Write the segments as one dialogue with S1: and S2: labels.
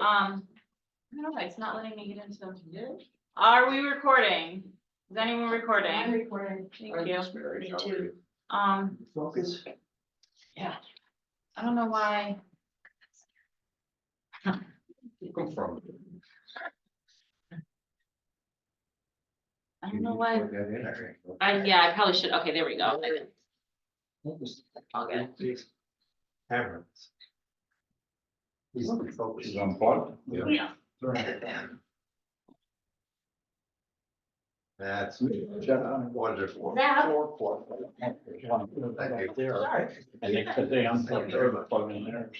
S1: Um, I don't know, why it's not letting me get into. Are we recording? Is anyone recording?
S2: recording.
S1: Thank you. Um,
S3: Focus.
S1: I don't know why.
S3: Come from.
S1: I don't know why. I, yeah, I probably should. Okay, there we go. All good.
S3: Parents. He's focused on part.
S1: Yeah.
S3: That's wonderful.
S1: That-
S3: Four, four, four. Thank you.
S4: And they said they unplugged their plug in there.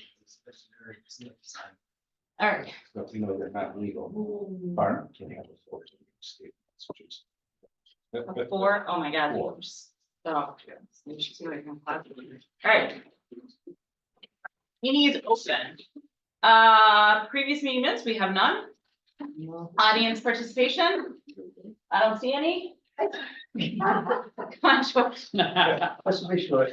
S1: All right.
S3: But you know, they're not legal. Aren't. can have a four.
S1: A Four, oh my god.
S3: Four.
S1: All right. Meeting is open. Uh, previous meeting minutes, we have none. Audience participation? I don't see any. Come on, George.
S3: Let's make sure.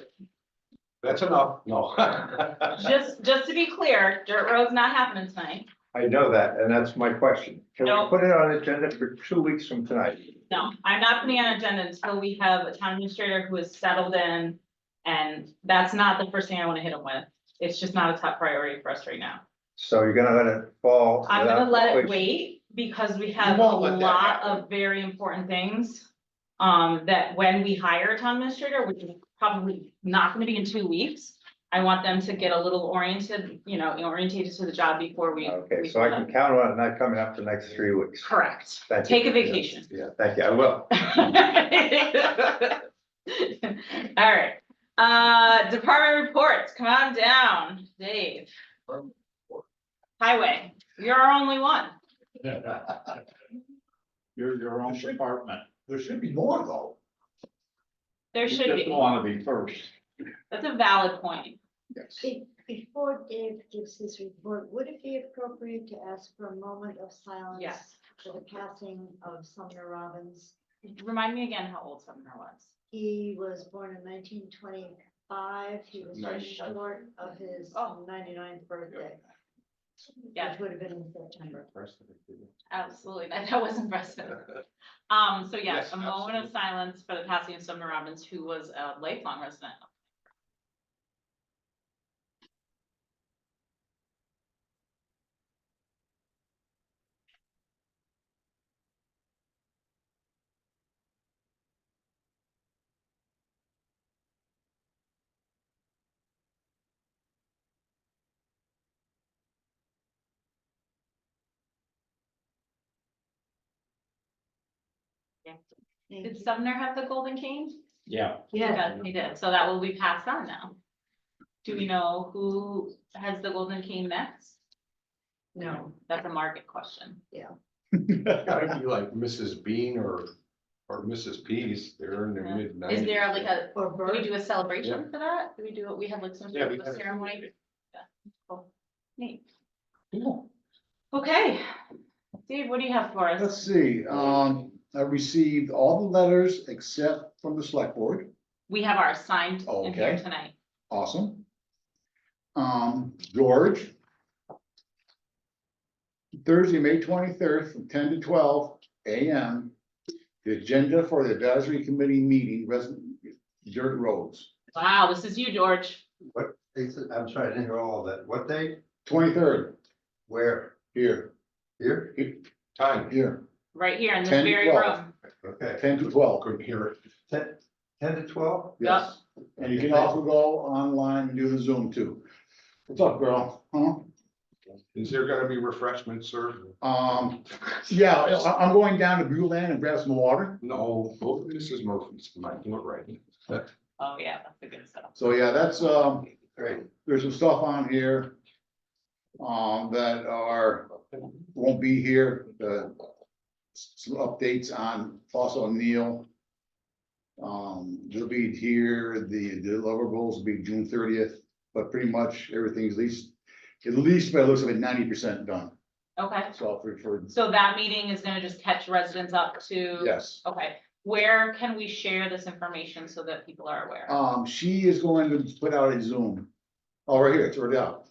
S3: That's enough. No. I
S1: Just, just to be clear, dirt road's not happening tonight.
S3: know that, and that's my question. Can
S1: No.
S3: we put it on agenda for two weeks from tonight?
S1: No, I'm not putting on agenda until we have a town administrator who is settled in. And that's not the first thing I want to hit him with. It's just not a top priority for us right now.
S3: So you're gonna let it fall?
S1: I'm gonna
S3: without-
S1: let it wait because we have a
S3: You won't let that
S1: lot
S3: happen.
S1: of very important things. Um, that when we hire a town administrator, which is probably not gonna be in two weeks. I want them to get a little oriented, you know, orientated to the job before we.
S3: Okay,
S1: we-
S3: so I can count on it not coming up the next three weeks.
S1: Correct.
S3: Thank you.
S1: Take a vacation.
S3: Yeah, thank you, I will.
S1: All right, uh, department reports, come on down, Dave. Highway, you're our only one.
S4: You're your own department.
S3: There should be more though.
S1: There should
S4: You just
S1: be,
S4: wanna be first.
S1: that's a valid point.
S3: Yes.
S2: Be- Before Dave gives his report, would it be appropriate to ask for a moment of silence? For the passing of Sumner Robbins.
S1: Remind me again how old Sumner was.
S2: He was born in nineteen twenty-five. He was just short of his
S1: Oh.
S2: 99th birthday.
S1: Yeah.
S2: Which would have been in September.
S1: Absolutely, that, that was impressive. Um, so yes,
S3: Yes,
S1: a moment of
S3: absolutely.
S1: silence for the passing of Sumner Robbins, who was a lifelong resident.
S2: Thank
S1: Did
S2: you.
S1: Sumner have the golden cane?
S4: Yeah,
S2: Yeah,
S1: Yes, he did, so that will be passed on now. Do we know who has the golden cane next?
S2: no,
S1: That's a market question.
S5: Gotta be like Mrs. Bean or, or Mrs. Pease, they're in
S1: Yeah.
S5: their mid nineties.
S1: Is there like a,
S2: or
S1: do we
S2: bird.
S1: do a celebration for that? Do we do, we have like some
S5: Yeah,
S1: sort
S5: we
S1: of a
S5: had a-
S1: ceremony? Yeah, cool. Neat. Okay, Dave, what do you have for us?
S6: Let's see, um, I received all the letters except from the select board,
S1: We have our signed in here
S6: Okay.
S1: tonight.
S6: awesome. Um, George. Thursday, May twenty-third, from ten to twelve AM, the agenda for the advisory committee meeting, resident, dirt roads,
S1: Wow, this is you, George.
S3: I'm sorry, I didn't hear all of that. What day?
S6: twenty-third,
S3: Where?
S6: here,
S3: Here? Time.
S6: here,
S1: right here in this
S6: 10,
S1: very
S6: 12.
S1: room.
S3: Okay.
S6: ten to twelve,
S5: Couldn't hear it.
S3: Ten, ten to twelve?
S6: yes. And you can also go online and do the Zoom too. What's up, girl, huh?
S5: Is there gonna be refreshments served?
S6: Um, yeah, I, I'm going down to Bueller and grab some water.
S5: No, both Mrs. Murphy's might do it right.
S1: Oh, yeah, that's a good setup.
S6: So yeah, that's, um,
S3: Great.
S6: there's some stuff on here. Um, that are, won't be here, the, some updates on fossil O'Neill. Um, they'll be here, the deliverables will be June thirtieth, but pretty much everything's at least, at least by the looks of it, ninety percent done.
S1: Okay,
S6: So for, for,
S1: so that meeting is gonna just catch residents up to.
S6: yes.
S1: Okay, where can we share this information so that people are aware?
S6: Um, she is going to put out a Zoom. Oh, right here, it's already out.